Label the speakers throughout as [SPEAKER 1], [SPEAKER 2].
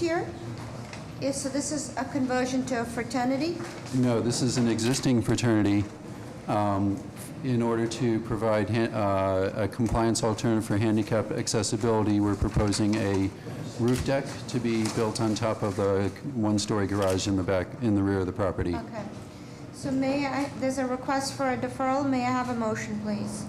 [SPEAKER 1] here is, so this is a conversion to a fraternity?
[SPEAKER 2] No, this is an existing fraternity. um, In order to provide han- uh, a compliance alternative for handicap accessibility, we're proposing a roof deck to be built on top of the one-story garage in the back, in the rear of the property.
[SPEAKER 1] Okay. So may I, there's a request for a deferral, may I have a motion, please?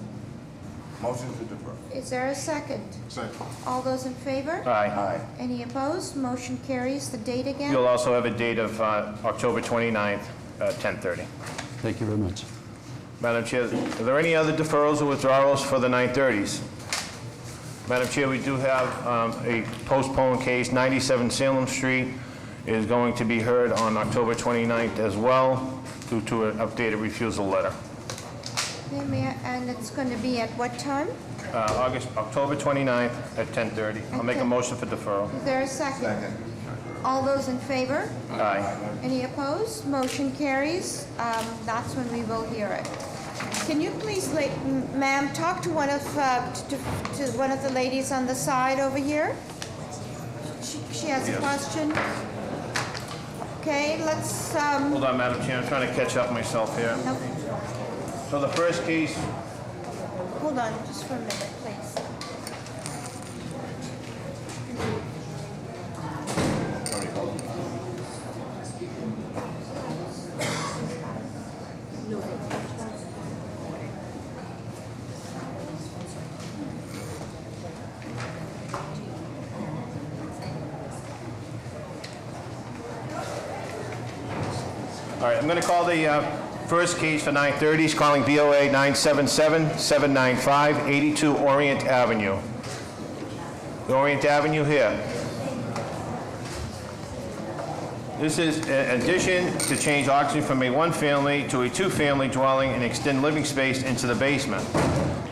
[SPEAKER 3] Motion to defer.
[SPEAKER 1] Is there a second?
[SPEAKER 3] Second.
[SPEAKER 1] All those in favor?
[SPEAKER 4] Aye.
[SPEAKER 3] Aye.
[SPEAKER 1] Any opposed? Motion carries. The date again?
[SPEAKER 4] You'll also have a date of uh, October 29th, uh, 10:30.
[SPEAKER 2] Thank you very much.
[SPEAKER 4] Madam Chair, are there any other deferrals or withdrawals for the 9:30s? Madam Chair, we do have um, a postponed case, 97 Salem Street is going to be heard on October 29th as well due to an updated refusal letter.
[SPEAKER 1] Okay, may I- And it's going to be at what time?
[SPEAKER 4] Uh, August, October 29th at 10:30. I'll make a
[SPEAKER 1] Okay.
[SPEAKER 4] motion for deferral.
[SPEAKER 1] Is there a second? All those in favor?
[SPEAKER 4] Aye.
[SPEAKER 1] Any opposed? Motion carries. Um, That's when we will hear it. Can you please, la- m- ma'am, talk to one of, uh, to to one of the ladies on the side over here? She she has a question? Okay, let's, um,
[SPEAKER 4] Hold on, Madam Chair, I'm trying to catch up myself here.
[SPEAKER 1] no,
[SPEAKER 4] So the first case
[SPEAKER 1] hold on just for a minute, please.
[SPEAKER 4] All right, I'm going to call the uh, first case for 9:30, is calling BOA 977-795-82 Orient Avenue. The Orient Avenue here. This is an addition to change occupancy from a one-family to a two-family dwelling and extend living space into the basement.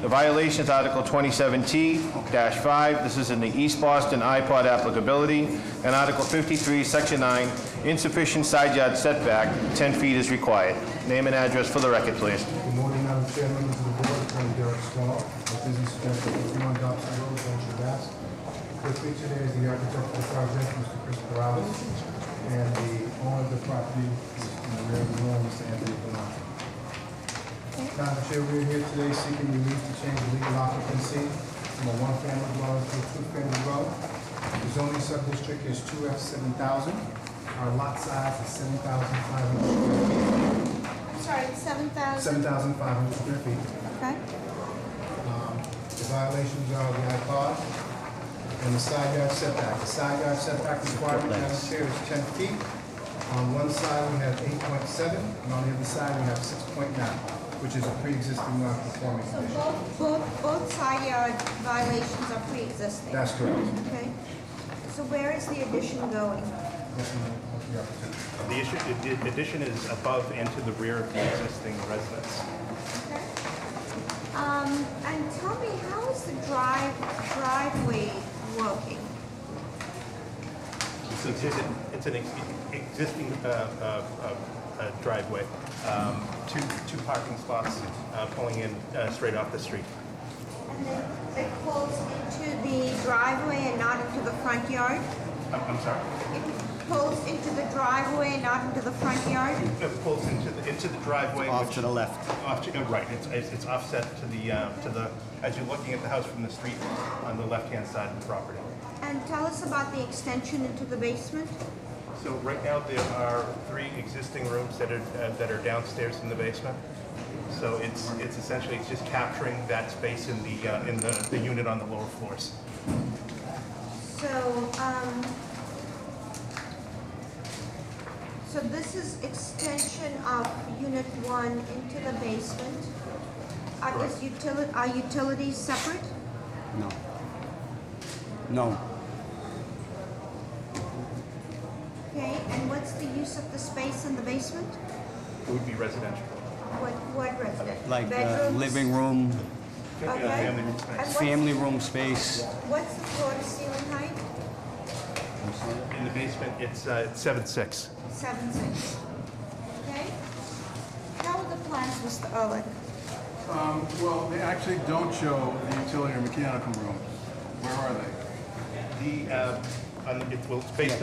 [SPEAKER 4] The violation is Article 27T-5, this is in the East Boston iPod applicability, and Article 53, Section 9, insufficient side yard setback, 10 feet is required. Name and address for the record, please.
[SPEAKER 5] Good morning, Madam Chair, members of the board, Attorney Derek Swallow, with business address at 51 Dobson Road, Venture Mass. With me today is the architect of the project, Mr. Christopher Alves, and the owner of the property, Mr. Mayor Malone, Mr. Anthony Benacci. Madam Chair, we are here today seeking relief to change the legal occupancy from a one-family dwelling to a two-family dwelling. The zoning sub-district is 2F 7,000. Our lot size is 7,500 square feet.
[SPEAKER 1] I'm sorry, 7,000,
[SPEAKER 5] 7,500 square feet.
[SPEAKER 1] okay?
[SPEAKER 5] The violations are the iPod and the side yard setback. The side yard setback requirement down here is 10 feet. On one side, we have 8.7, and on the other side, we have 6.9, which is a pre-existing non-conforming
[SPEAKER 1] So
[SPEAKER 5] condition.
[SPEAKER 1] both, both, both side yard violations are pre-existing,
[SPEAKER 5] That's correct.
[SPEAKER 1] okay? So where is the addition going?
[SPEAKER 5] That's my- that's the opportunity.
[SPEAKER 6] The issue- the- the addition is above and to the rear of the existing residence.
[SPEAKER 1] Okay. Um, and tell me, how is the drive, driveway working?
[SPEAKER 6] It's an- It's an ex- existing uh, uh, uh, uh, driveway, um, two two parking spots uh, pulling in uh, straight off the street.
[SPEAKER 1] And then it pulls into the driveway and not into the front yard?
[SPEAKER 6] I'm I'm sorry.
[SPEAKER 1] It pulls into the driveway and not into the front yard?
[SPEAKER 6] It pulls into the into the driveway. Off to the left. Off to, uh, right, it's- it's it's offset to the, uh, to the, as you're looking at the house from the street on the left-hand side of the property.
[SPEAKER 1] And tell us about the extension into the basement?
[SPEAKER 6] So right now, there are three existing rooms that are, uh, that are downstairs in the basement. So it's, it's essentially, it's just capturing that space in the, uh, in the, the unit on the lower floors.
[SPEAKER 1] So, um, so this is extension of unit one into the basement. Are this utili- are utilities separate?
[SPEAKER 2] No. No.
[SPEAKER 1] Okay, and what's the use of the space in the basement?
[SPEAKER 6] It would be residential.
[SPEAKER 1] What, what resident?
[SPEAKER 7] like uh,
[SPEAKER 1] Bedrooms?
[SPEAKER 7] living room,
[SPEAKER 6] Uh,
[SPEAKER 1] Okay.
[SPEAKER 6] family room space.
[SPEAKER 1] And what's-
[SPEAKER 7] family room space.
[SPEAKER 1] What's the floor to ceiling height?
[SPEAKER 6] In the basement, it's, uh, it's seven six.
[SPEAKER 1] Seven six. Okay? How are the plans, Mr. Ehrlich?
[SPEAKER 8] Um, Well, they actually don't show the utility or mechanical room. Where are they?
[SPEAKER 6] The, uh, on- it will, it's based